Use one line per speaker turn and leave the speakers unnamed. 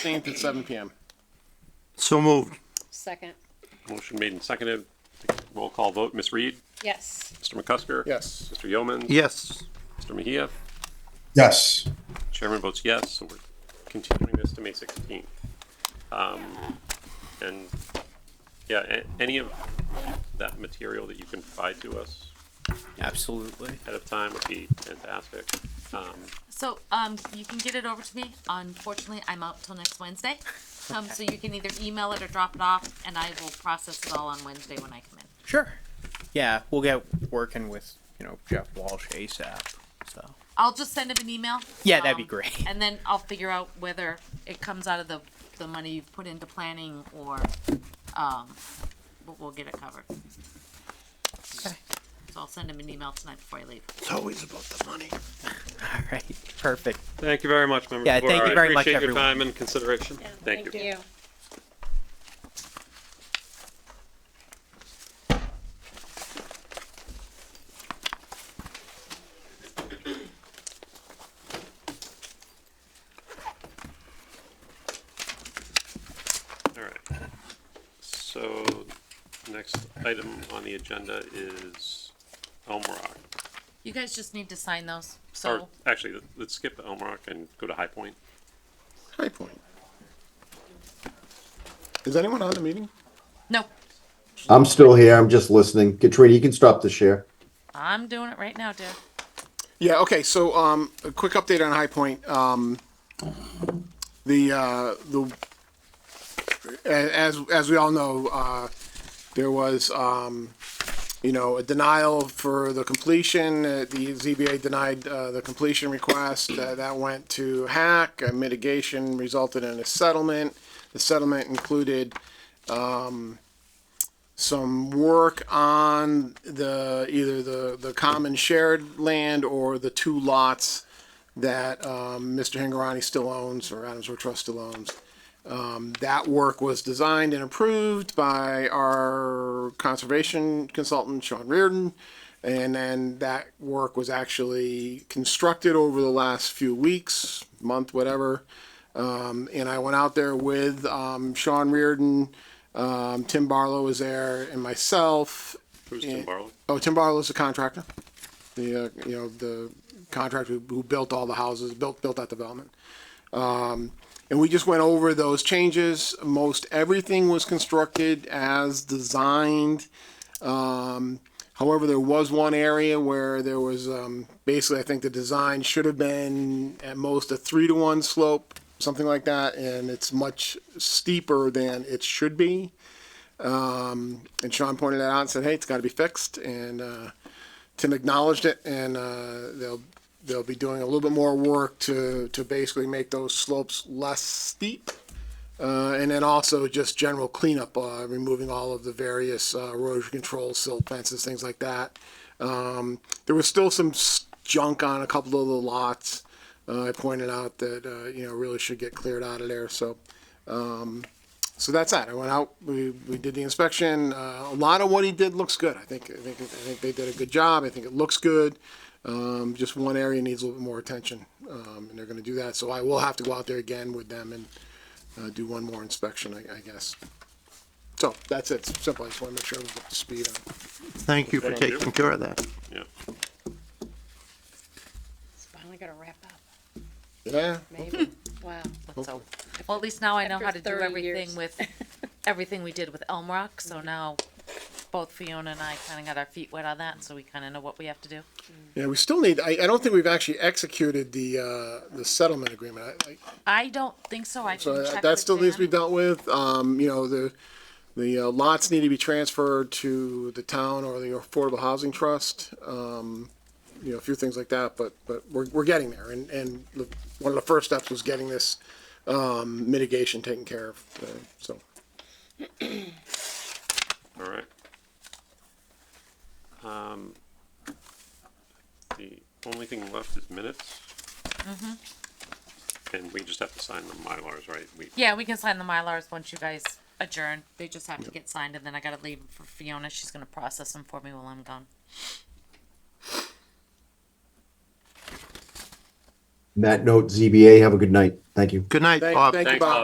16th at 7 PM.
So moved.
Second.
Motion made and seconded. Roll call vote. Ms. Reed?
Yes.
Mr. McCusker?
Yes.
Mr. Yeoman?
Yes.
Mr. Mejia?
Yes.
Chairman votes yes, so we're continuing this to May 16th. Um, And, yeah, a- any of that material that you can provide to us
Absolutely.
ahead of time would be fantastic. Um,
So, um, you can get it over to me. Unfortunately, I'm out till next Wednesday. Um, so you can either email it or drop it off and I will process it all on Wednesday when I come in.
Sure. Yeah, we'll get working with, you know, Jeff Walsh ASAP. So
I'll just send him an email.
Yeah, that'd be
um,
great.
And then I'll figure out whether it comes out of the, the money you've put into planning or, um, we'll, we'll get it covered.
Okay.
So I'll send him an email tonight before I leave.
It's always about the money.
All right. Perfect.
Thank you very much, members.
Yeah,
of the board.
thank you
I
very much,
Appreciate your
everyone.
time and consideration. Thank you. All right. So, next item on the agenda is Elmrock.
You guys just need to sign those,
Or,
so,
actually, let- let's skip the Elmrock and go to High Point.
High Point. Is anyone on the meeting?
no,
I'm still here. I'm just listening. Katrina, you can stop the share.
I'm doing it right now, dear.
Yeah, okay, so, um, a quick update on High Point. Um, the, uh, the, a- as, as we all know, uh, there was, um, you know, a denial for the completion. Uh, The ZBA denied, uh, the completion request. Uh, That went to Hack. Uh, Mitigation resulted in a settlement. The settlement included, some work on the, either the, the common shared land or the two lots that, um, Mr. Hingarani still owns, or Adams Road Trust still owns. Um, that work was designed and approved by our conservation consultant, Sean Reardon. And then that work was actually constructed over the last few weeks, month, whatever. Um, and I went out there with, um, Sean Reardon, um, Tim Barlow was there and myself.
Who's Tim
Yeah.
Barlow?
Oh, Tim Barlow's the contractor. The, uh, you know, the contractor who- who built all the houses, built, built that development. Um, And we just went over those changes. Most everything was constructed as designed. Um, however, there was one area where there was, um, basically, I think the design should have been at most a three to one slope, something like that, and it's much steeper than it should be. Um, and Sean pointed that out and said, hey, it's gotta be fixed, and, uh, Tim acknowledged it, and, uh, they'll, they'll be doing a little bit more work to, to basically make those slopes less steep. Uh, and then also just general cleanup, uh, removing all of the various, uh, erosion control, silt fences, things like that. Um, there was still some s- junk on a couple of the lots. Uh, I pointed out that, uh, you know, really should get cleared out of there, so, um, so that's that. I went out, we, we did the inspection. Uh, a lot of what he did looks good. I think, I think, I think they did a good job. I think it looks good. Um, just one area needs a little bit more attention, um, and they're gonna do that, so I will have to go out there again with them and, uh, do one more inspection, I, I guess. So, that's it, simple, I just wanna make sure I'm up to speed on.
Thank you for
Thank you.
taking care of that.
Yeah.
It's finally gonna wrap up,
Yeah,
maybe. Wow.
Let's hope. Well, at least now I know how
After
to do
30
everything
years.
with, everything we did with Elm Rock, so now both Fiona and I kinda got our feet wet on that, so we kinda know what we have to do.
yeah, we still need, I, I don't think we've actually executed the, uh, the settlement agreement. I- I-
I don't think so, I
So
can
that
check
that
with
still needs to be
Dan.
dealt with, um, you know, the, the uh, lots need to be transferred to the town or the Affordable Housing Trust. Um, you know, a few things like that, but, but we're, we're getting there, and, and the- one of the first steps was getting this, um, mitigation taken care of, uh, so.
All right. Um, the only thing left is minutes. And we just have to sign the Mylars, right? We,
Yeah, we can sign the Mylars once you guys adjourn, they just have to get signed, and then I gotta leave 'em for Fiona, she's gonna process them for me while I'm gone.
On That note, ZBA, have a good night. Thank you.
Good night,
Thank-
Bob.
thank you,
Thanks,
Bob.
Bob.